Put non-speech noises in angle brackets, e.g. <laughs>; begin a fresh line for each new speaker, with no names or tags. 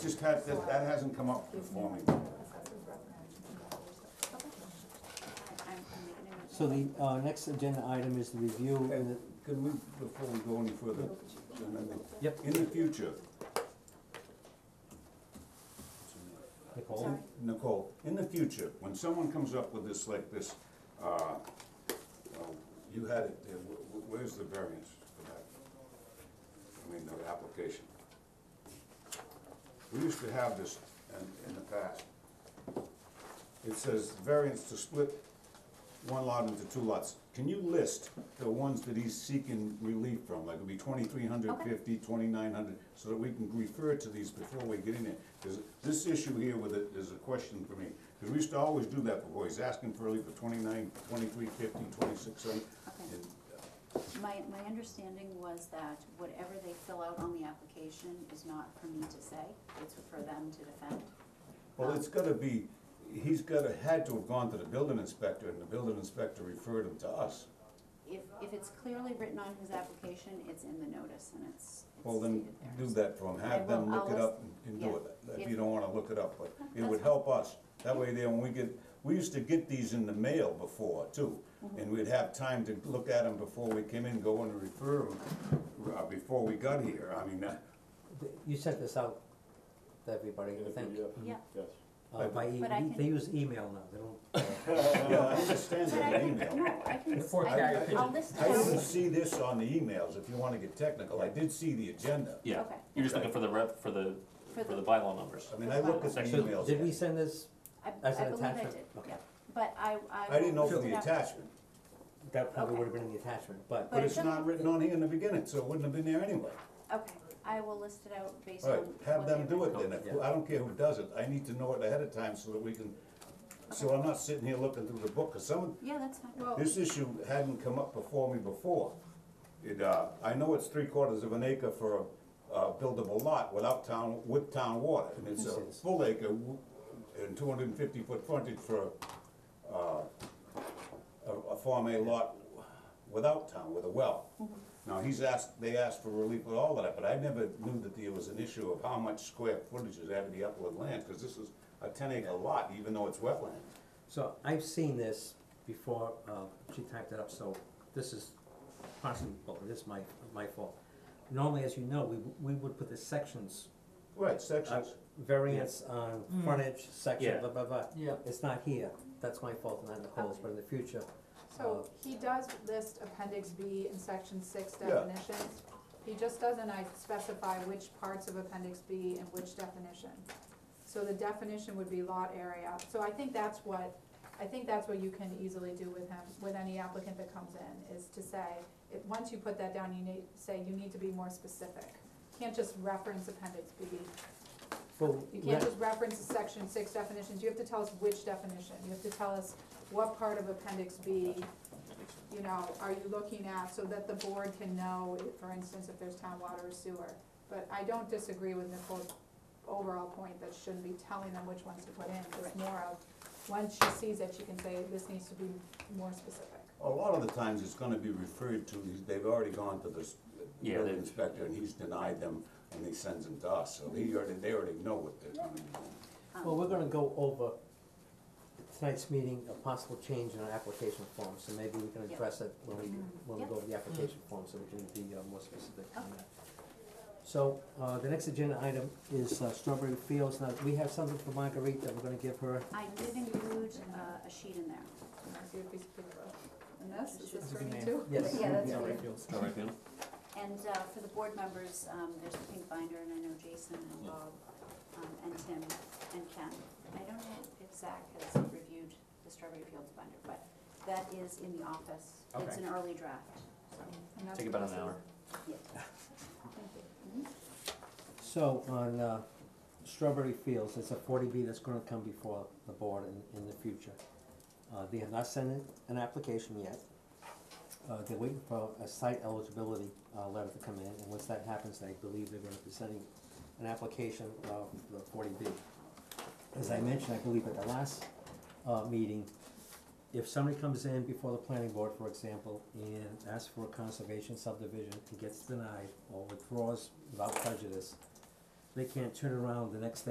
Just had, that, that hasn't come up for me.
I'm, I'm making a note.
So the, uh, next agenda item is the review and
And
the,
could we, before we go any further, and I think-
Yep.
in the future,
Nicole?
Sorry.
Nicole, in the future, when someone comes up with this like this, uh, well, you had it there, wh- wh- where's the variance for that? I mean, the application. We used to have this in, in the past. It says variance to split one lot into two lots. Can you list the ones that he's seeking relief from, like it'd be twenty-three hundred fifty, twenty-nine hundred, so that we can refer to these before we get in there? Because this issue here with it is a question for me, because we used to always do that before, he's asking for relief for twenty-nine, twenty-three fifty, twenty-six hundred.
Okay. My, my understanding was that whatever they fill out on the application is not for me to say, it's for them to defend.
Well, it's gotta be, he's gotta, had to have gone to the building inspector, and the building inspector referred him to us.
If, if it's clearly written on his application, it's in the notice and it's, it's
Well, then,
stated there.
do that for them, have them
I will-
look it
I'll
up and do
list-
it,
yeah.
if you don't wanna look it up, but it
That's
would help us. That way there, when we get, we used to get these in the mail before too,
Mm-hmm.
and we'd have time to look at them before we came in, go and refer them, uh, before we got here, I mean, uh,
you sent this out to everybody, I think.
Yeah,
Yes.
Uh, by e-
But I
they
can-
use email now, they don't, uh,
<laughs> yeah, I understand
but I
the
can,
email.
no, I can,
Four
I
carrier
can, I'll
pigeon.
list
I
them.
didn't see this on the emails, if you wanna get technical, I did see the agenda.
Yeah,
Okay.
you're just looking for the rep, for the,
For
for
the-
the bylaw numbers.
I mean, I look at the
Section-
so
emails.
did we send this,
I,
As
I
an
believe I did,
attachment?
yeah, but I, I.
I didn't
will
open
list
the
it up.
attachment,
that probably
Okay.
would have been in the attachment,
but
but,
But
it's
it's-
not written on here in the beginning, so it wouldn't have been there anyway.
Okay, I will list it out based on.
Right, have
what
them
they
do
wrote.
it then, if, I don't care who does it, I need to know it ahead of time so that we can, so I'm not sitting here looking through the book, cause some,
Yeah, that's fine, well,
this issue hadn't come up before me before. It, uh, I know it's three quarters of an acre for a, uh buildable lot without town, with town water, and it's a
Yes.
full acre w- and two hundred and fifty foot frontage for, uh, a, a farm A lot without town, with a well.
Mm-hmm.
Now, he's asked, they asked for relief with all of that, but I never knew that there was an issue of how much square footage is out of the upland land, cause this is a ten acre lot, even though it's wetland.
so I've seen this before, uh, she typed it up, so this is possible, this is my, my fault. Normally, as you know, we, w- we would put the sections,
Right,
uh,
sections.
variance on
Mm.
frontage, section,
Yeah.
blah, blah, blah.
Yeah.
It's not here, that's my fault, not Nicole's, but in the future,
So he does list appendix B in section six
Yeah.
definitions. He just doesn't, I specify which parts of appendix B and which definition. So the definition would be lot area. So I think that's what, I think that's what you can easily do with him, with any applicant that comes in, is to say, if, once you put that down, you need, say, you need to be more specific. Can't just reference appendix B.
well,
You
let-
can't just reference the section six definitions, you have to tell us which definition, you have to tell us what part of appendix B, you know, are you looking at, so that the board can know, for instance, if there's town water or sewer. But I don't disagree with Nicole's overall point that shouldn't be telling them which ones to put in, it's more of, once she sees it, she can say, this needs to be more specific.
A lot of the times it's gonna be referred to, they've already gone to this
Yeah,
building
they-
inspector and he's denied them and he sends them to us, so he already, they already know what they're gonna be doing.
um,
Well, we're gonna go over tonight's meeting, a possible change in our application form, so maybe we can
Yep.
address it when we,
Mm-hmm.
when we go over the application form, so we can be uh, more specific on that. So, uh, the next agenda item is uh, Strawberry Fields, now, we have something for Marguerite that we're gonna give her,
I did include uh, a sheet in there.
Can I see a piece of paper? And this, is this
It's
for me too?
yes.
Yeah, that's
Strawberry
fine.
Fields.
All right, Bill?
And uh, for the board members, um, there's the pink binder, and I know Jason and
Yeah.
Bob, um, and Tim, and Ken. I don't know if Zach has reviewed the Strawberry Fields binder, but that is in the office. It's
Okay.
an early draft, so,
And that's
Take about
what
an
this
hour.
is.
yeah.
Thank you.
Mm-hmm.
So, on, uh, Strawberry Fields, it's a forty B that's gonna come before the board in, in the future. Uh, they have not sent in an application yet. Uh, they're waiting for a site eligibility, uh, letter to come in, and once that happens, I believe they're gonna be sending an application of the forty B. As I mentioned, I believe at the last, uh, meeting, if somebody comes in before the planning board, for example, and asks for a conservation subdivision and gets denied or withdraws without prejudice, they can't turn around the next day